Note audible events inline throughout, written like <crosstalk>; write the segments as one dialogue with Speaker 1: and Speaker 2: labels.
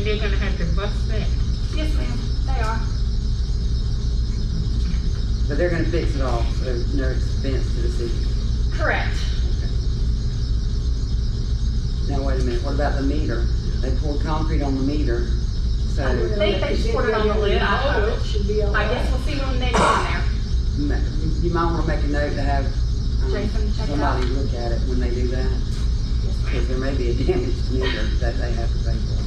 Speaker 1: they're gonna have to bust that.
Speaker 2: Yes, ma'am, they are.
Speaker 3: But they're gonna fix it all, so no expense to the city.
Speaker 2: Correct.
Speaker 3: Now, wait a minute, what about the meter? They poured concrete on the meter, so
Speaker 4: I
Speaker 3: ma-
Speaker 2: think they just put it on the lid, I hope.
Speaker 4: Should be all
Speaker 2: I
Speaker 4: right.
Speaker 2: guess we'll see when they get in there.
Speaker 3: you might wanna make a note to have um,
Speaker 2: Jason, check it out.
Speaker 3: somebody look at it when they do that,
Speaker 2: Yes, ma'am.
Speaker 3: because there may be a <laughs> damaged meter that they have to pay for.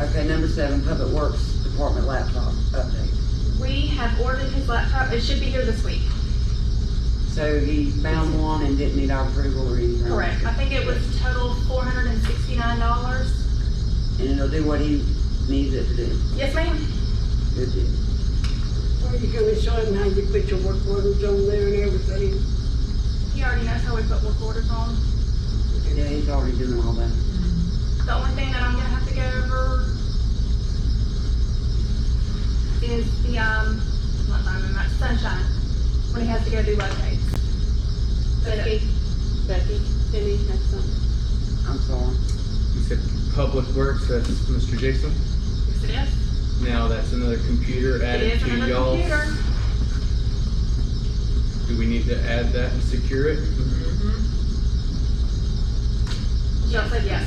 Speaker 3: Okay, number seven, Public Works Department laptop update.
Speaker 2: We have ordered his laptop, it should be here this week.
Speaker 3: So he found one and didn't need our approval or anything?
Speaker 2: Correct. I think it was total four hundred and sixty-nine dollars.
Speaker 3: And it'll do what he needs it to do,
Speaker 2: Yes, ma'am.
Speaker 3: good deal.
Speaker 4: Are you gonna show him how you put your work orders on there and everything?
Speaker 2: He already knows how we put work orders on.
Speaker 3: Yeah, he's already doing all that.
Speaker 2: The only thing that I'm gonna have to go over is the, um, not diamond, not sunshine, when he has to go do rotates.
Speaker 5: Becky, Becky, Timmy has something.
Speaker 3: I'm sorry.
Speaker 6: You said Public Works, that's Mr. Jason.
Speaker 2: Yes, it is.
Speaker 6: Now that's another computer
Speaker 2: It
Speaker 6: added
Speaker 2: is
Speaker 6: to
Speaker 2: another
Speaker 6: y'all.
Speaker 2: computer.
Speaker 6: Do we need to add that and secure it?
Speaker 2: Y'all said yes.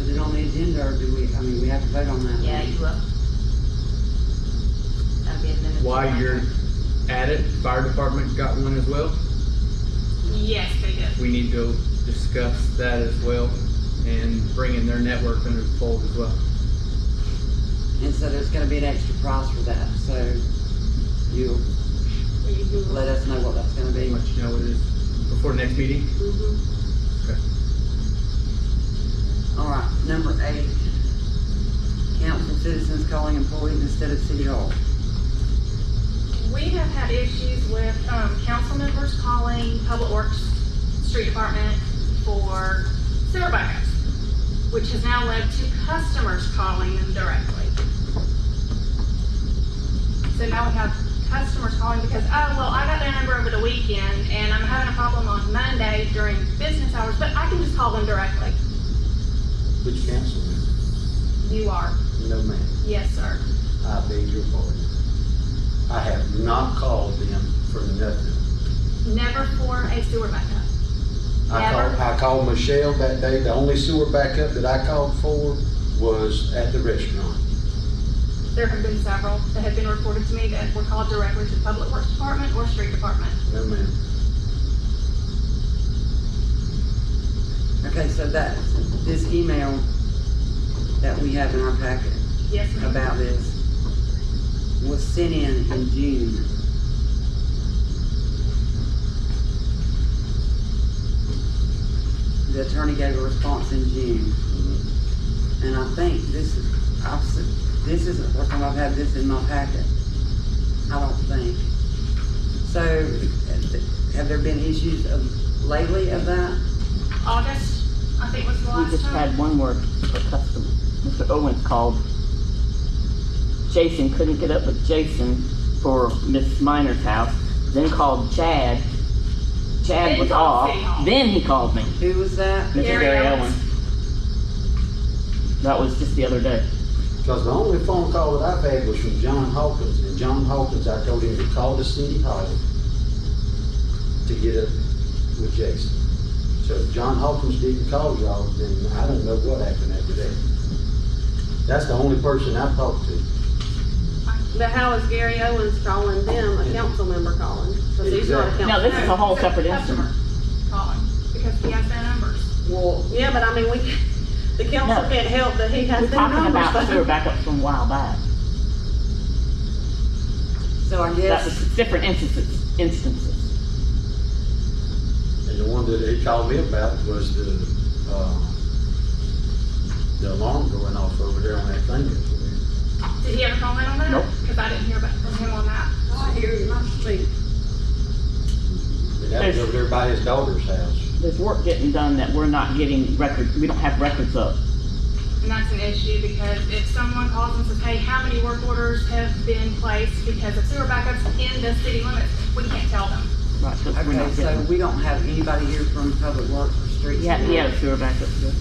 Speaker 3: Is it on the agenda or do we, I mean, we have to vote on that?
Speaker 5: Yeah, you will. That'll be a minute.
Speaker 6: While you're at it, fire department got one as well.
Speaker 2: Yes, they did.
Speaker 6: We need to discuss that as well and bring in their network under the fold as well.
Speaker 3: And so there's gonna be an extra price for that, so you
Speaker 4: Are you doing?
Speaker 3: let us know what that's gonna be.
Speaker 6: Let you know what it is before the next meeting.
Speaker 4: Mhm.
Speaker 3: All right, number eight. Council citizens calling employees instead of city hall.
Speaker 2: We have had issues with, um, council members calling Public Works Street Department for sewer backups, which has now led to customers calling them directly. So now we have customers calling because, oh, well, I got their number over the weekend and I'm having a problem on Monday during business hours, but I can just call them directly.
Speaker 7: Which council?
Speaker 2: You are,
Speaker 7: No, ma'am.
Speaker 2: yes, sir.
Speaker 7: I beg your pardon. I have not called them for nothing.
Speaker 2: Never for a sewer backup.
Speaker 7: I called,
Speaker 2: Never.
Speaker 7: I called Michelle that day. The only sewer backup that I called for was at the restaurant.
Speaker 2: There have been several that have been reported to me that were called directly to the Public Works Department or Street Department.
Speaker 7: No, ma'am.
Speaker 3: Okay, so that, this email that we have in our packet
Speaker 2: Yes, ma'am.
Speaker 3: about this was sent in in June. The attorney gave a response in June. And I think this is, I've, s- this is the first time I've had this in my packet. I don't think. So, have there been issues of, lately of that?
Speaker 2: August, I think was the
Speaker 8: We
Speaker 2: last
Speaker 8: just
Speaker 2: time.
Speaker 8: had one word for customer. Mr. Owens called. Jason couldn't get up with Jason for Miss Minor's house, then called Chad.
Speaker 2: Then
Speaker 8: Chad was
Speaker 2: called City Hall.
Speaker 8: off, then he called me.
Speaker 3: Who was that?
Speaker 8: Mr.
Speaker 2: Gary
Speaker 8: Gary
Speaker 2: Owens.
Speaker 8: Owens. That was just the other day.
Speaker 7: Because the only phone call that I've had was from John Hawkins, and John Hawkins, I told him to call the city hall to get up with Jason. So if John Hawkins didn't call y'all, then I don't know what happened after that. That's the only person I've talked to.
Speaker 4: But how is Gary Owens calling them, a council member calling? Cause he's not a
Speaker 7: Exactly.
Speaker 4: council.
Speaker 8: Now, this is a whole
Speaker 2: No, it's
Speaker 8: separate
Speaker 2: customer
Speaker 8: incident.
Speaker 2: Calling, because he has their numbers.
Speaker 4: Well, yeah, but I mean, we, <laughs> the council
Speaker 8: No.
Speaker 4: can't help that he has
Speaker 8: We're
Speaker 4: their
Speaker 8: talking
Speaker 4: numbers.
Speaker 8: about
Speaker 4: but-
Speaker 8: sewer backups from a while back.
Speaker 3: So I
Speaker 8: That
Speaker 3: guess.
Speaker 8: was different instances, instances.
Speaker 7: And the one that he called me about was the, uh, the alarm going off over there on that thing. that's over there.
Speaker 2: Did he ever comment on that?
Speaker 8: Nope.
Speaker 2: Because I didn't hear back from him on that.
Speaker 4: I hear him, I sleep.
Speaker 7: And That was over there by his daughter's house.
Speaker 8: There's work getting done that we're not getting records, we don't have records of.
Speaker 2: And that's an issue because if someone calls and says, hey, how many work orders have been placed because of sewer backups in the city limits, we can't tell them.
Speaker 8: Right, 'cause we're
Speaker 3: Okay,
Speaker 8: not getting.
Speaker 3: so we don't have anybody here from Public Works or streets.
Speaker 8: He had, he
Speaker 3: now.
Speaker 8: had a sewer backup.